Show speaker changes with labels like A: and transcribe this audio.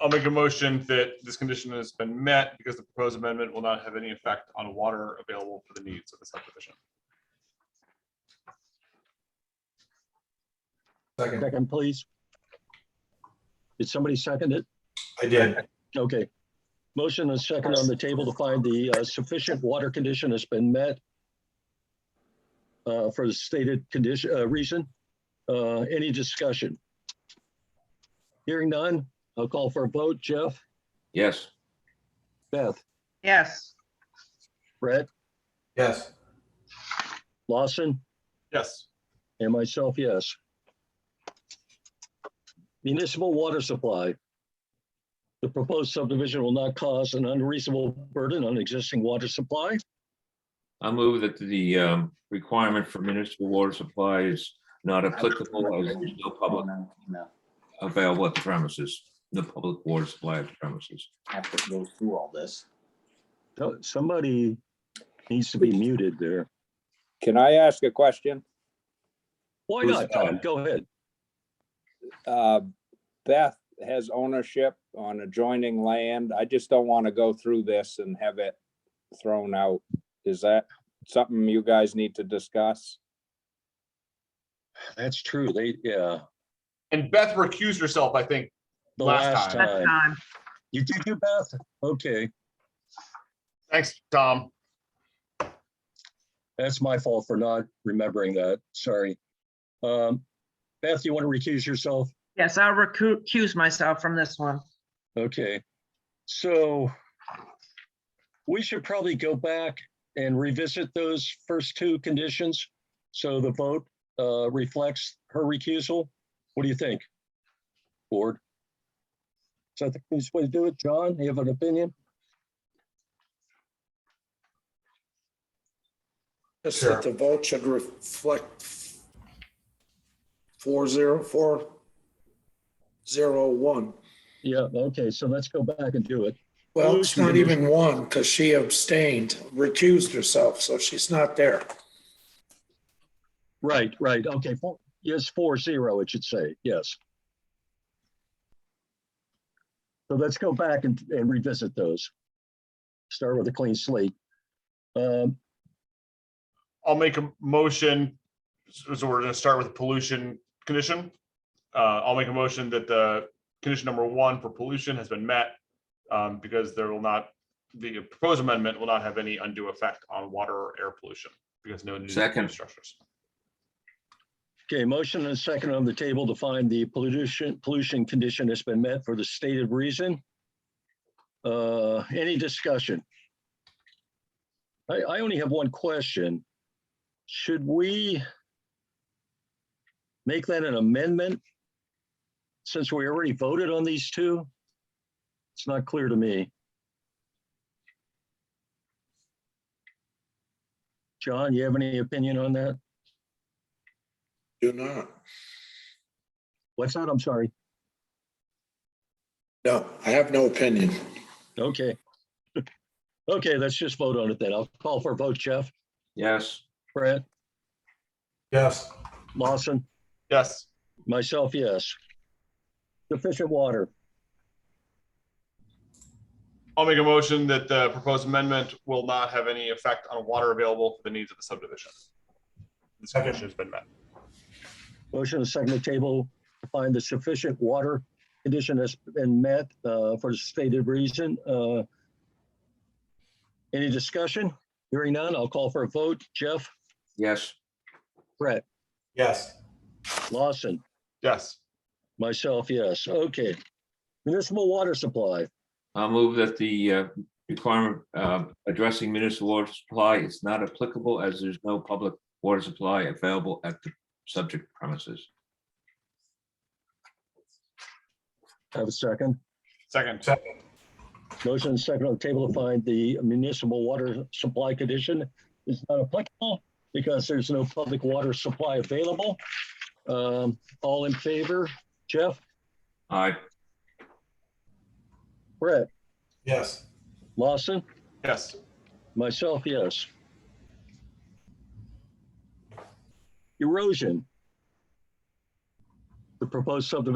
A: I'll make a motion that this condition has been met because the proposed amendment will not have any effect on water available for the needs of the subdivision.
B: Second,
C: Second, please. Did somebody second it?
B: I did.
C: Okay. Motion and second on the table to find the uh, sufficient water condition has been met uh, for the stated condition, uh, reason. Uh, Any discussion? Hearing none, I'll call for a vote. Jeff,
D: yes,
C: Beth,
E: yes,
C: Brett,
B: Yes,
C: Lawson,
A: Yes,
C: and myself, yes. Municipal water supply. The proposed subdivision will not cause an unreasonable burden on existing water supply.
D: I move that the um, requirement for municipal water supply is not applicable as there's no public
F: No,
D: available at the premises, no public water supply at the premises.
F: Have to go through all this.
C: Oh, Somebody needs to be muted there.
G: Can I ask a question?
C: Why
D: Who's
C: not, Tom? Go ahead.
G: Uh, Beth has ownership on adjoining land. I just don't want to go through this and have it thrown out. Is that something you guys need to discuss?
C: That's true. They, yeah,
A: and Beth recused herself, I think.
C: the last
A: Last
E: that's
C: time.
E: time.
C: You did your best. Okay,
A: Thanks, Tom.
C: that's my fault for not remembering that. Sorry. Um, Beth, you want to recuse yourself?
E: Yes, I'll recu- recuse myself from this one.
C: Okay, so we should probably go back and revisit those first two conditions. So the vote uh, reflects her recusal. What do you think? Board? So I think this way to do it. John, you have an opinion?
H: Just
B: Sure.
H: that the vote should reflect four zero, four zero one.
C: Yeah, okay, so let's go back and do it.
H: Well, it's not even one because she abstained, recused herself, so she's not there.
C: Right, right, okay, four, yes, four zero, it should say, yes. So let's go back and, and revisit those. Start with a clean slate. Um,
A: I'll make a motion, so so we're gonna start with pollution condition. Uh, I'll make a motion that the condition number one for pollution has been met. um, because there will not, the proposed amendment will not have any undue effect on water or air pollution, because no new
D: Second.
A: structures.
C: okay, motion and second on the table to find the pollution, pollution condition has been met for the stated reason. Uh, any discussion? I, I only have one question. Should we make that an amendment? Since we already voted on these two? It's not clear to me. John, you have any opinion on that?
H: Do not.
C: What's that? I'm sorry.
H: No, I have no opinion.
C: Okay. Okay, let's just vote on it then. I'll call for a vote. Jeff,
D: Yes,
C: Brett,
B: yes,
C: Lawson.
A: Yes,
C: Myself, yes. Sufficient water.
A: I'll make a motion that the proposed amendment will not have any effect on water available for the needs of the subdivision. This
B: Second.
A: condition has been met.
C: Motion to second the table to find the sufficient water condition has been met uh, for the stated reason. Uh, Any discussion? Hearing none, I'll call for a vote. Jeff,
D: yes,
C: Brett,
B: yes,
C: Lawson,
A: Yes,
C: myself, yes. Okay. Municipal water supply.
D: I'll move that the uh, requirement uh, addressing municipal water supply is not applicable as there's no public water supply available at the subject premises.
C: Have a second.
A: second,
C: Motion and second on the table to find the municipal water supply condition is not applicable because there's no public water supply available. Um, all in favor, Jeff,
D: Aye,
C: Brett,
B: yes,
C: Lawson,
A: yes,
C: myself, yes. Erosion. The proposed subdivision